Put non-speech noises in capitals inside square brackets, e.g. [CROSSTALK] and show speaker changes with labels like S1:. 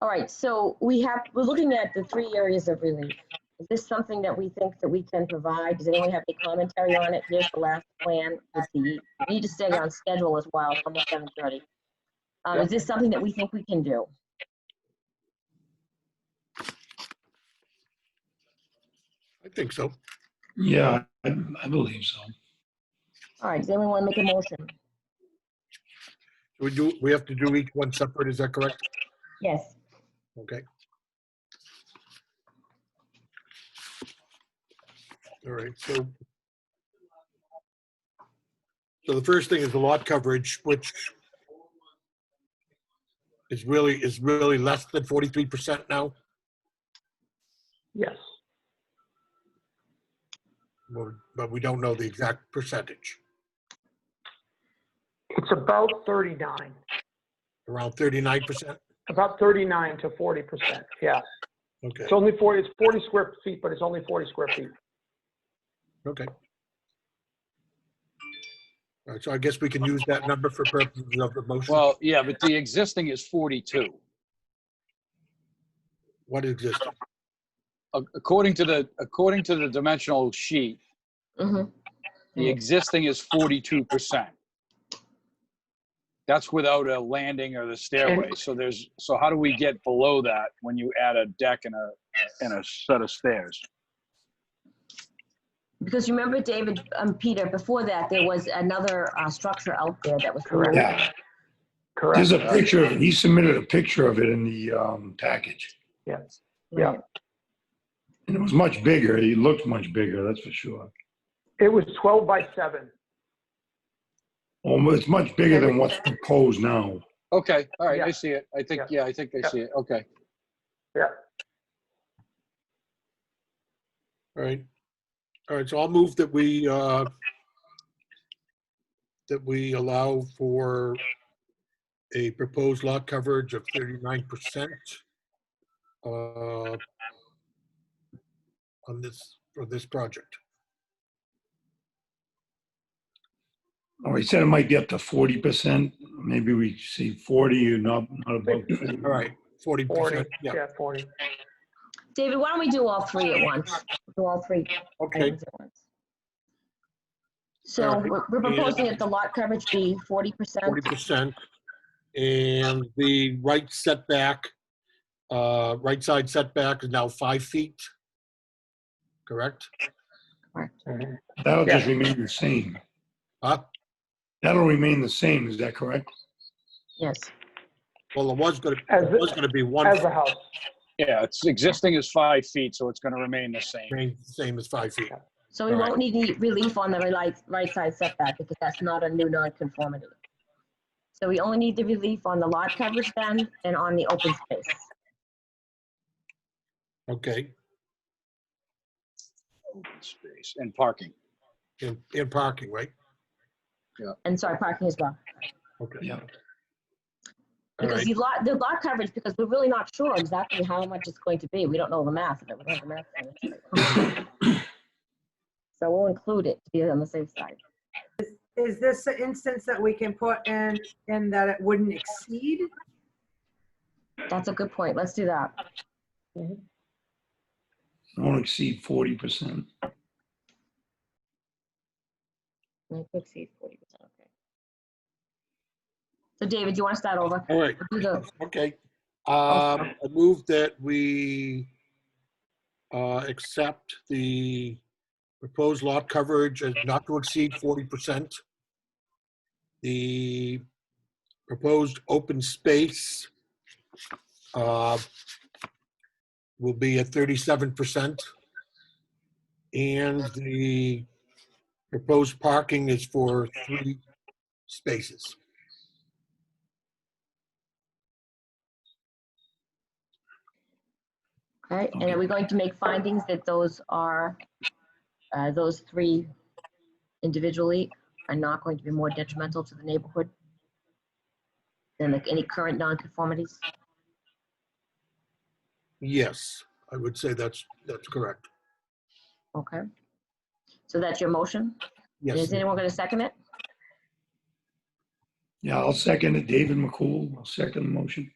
S1: All right, so we have, we're looking at the three areas of relief. Is this something that we think that we can provide? Does anyone have any commentary on it? Here's the last plan. Let's see, we need to stay on schedule as well, from seven thirty. Um, is this something that we think we can do?
S2: I think so.
S3: Yeah, I, I believe so.
S1: All right, does anyone want to make a motion?
S2: We do, we have to do each one separate, is that correct?
S1: Yes,
S2: Okay. All right, so. So the first thing is the lot coverage, which is really, is really less than 43% now.
S4: Yes.
S2: Well, But we don't know the exact percentage,
S4: It's about 39,
S2: around 39%?
S4: about 39 to 40%, yeah.
S2: Okay,
S4: It's only 40, it's 40 square feet, but it's only 40 square feet.
S2: okay. All right, so I guess we can use that number for purposes of the motion.
S5: Well, yeah, but the existing is 42.
S2: What existed?
S5: A- According to the, according to the dimensional sheet,
S1: mhm,
S4: Hmm.
S5: the existing is 42%. That's without a landing or the stairway. So there's, so how do we get below that when you add a deck and a, and a set of stairs?
S1: because remember, David, um, Peter, before that, there was another, uh, structure out there that was.
S4: Correct.
S3: Yeah,
S4: Correct,
S3: there's a picture of it. He submitted a picture of it in the um, package.
S4: yes.
S1: Right.
S4: Yeah.
S3: And it was much bigger. He looked much bigger, that's for sure.
S4: It was 12 by 7.
S3: Um, it's much bigger than what's proposed now.
S5: Okay, all right,
S4: Yeah.
S5: I see it. I think, yeah, I think I
S4: Yeah.
S5: see it. Okay.
S2: All right. All right, so I'll move that we, uh that we allow for a proposed lot coverage of 39%. uh On this, for this project.
S3: Oh, he said it might be up to forty percent. Maybe we see forty or not, not above. 50.
S2: All right,
S4: 40,
S2: 40%, yeah,
S4: yeah, 40.
S1: David, why don't we do all three at once? Do all three.
S2: okay,
S1: items at once. So
S2: Alright.
S1: we're we're proposing that the lot coverage be forty percent.
S2: 40%. And the right setback, uh right side setback is now five feet. Correct?
S4: Mhm.
S3: That'll just remain the same.
S2: Huh?
S3: That'll remain the same, is that correct?
S1: Yes.
S2: Well, it was gonna,
S4: As,
S2: it was gonna be one.
S4: as a house,
S5: Yeah, it's existing is five feet, so it's going to remain the same.
S2: Remain the same as five feet.
S1: So we won't need any relief on the right, right side setback because that's not a new nonconformity. So we only need the relief on the lot coverage then and on the open space.
S2: Okay,
S5: Space and parking.
S2: in, in parking, right?
S1: And sorry, parking as well.
S2: Okay.
S3: Yeah.
S2: All
S1: Because
S2: right,
S1: the lot, the lot coverage, because we're really not sure exactly how much it's going to be. We don't know the math of it. We don't have the math. of
S2: [COUGHS]
S1: it. So we'll include it to be on the safe side.
S6: Is this an instance that we can put in, in that it wouldn't exceed?
S1: That's a good point. Let's do that.
S3: Won't exceed forty percent.
S1: Not to exceed forty percent, okay. So David, do you want to start over?
S2: all right,
S1: Do the-
S2: okay. Um, I move that we, uh, accept the proposed lot coverage as not to exceed forty percent. The proposed open space, uh, will be at thirty-seven percent. And the proposed parking is for three spaces.
S1: All right, and are we going to make findings that those are, uh, those three individually are not going to be more detrimental to the neighborhood than like any current nonconformities?
S2: Yes, I would say that's, that's correct.
S1: Okay. So that's your motion? And
S2: Yes,
S1: Is anyone going to second it?
S3: Yeah, I'll second it. David McCool, I'll second the motion.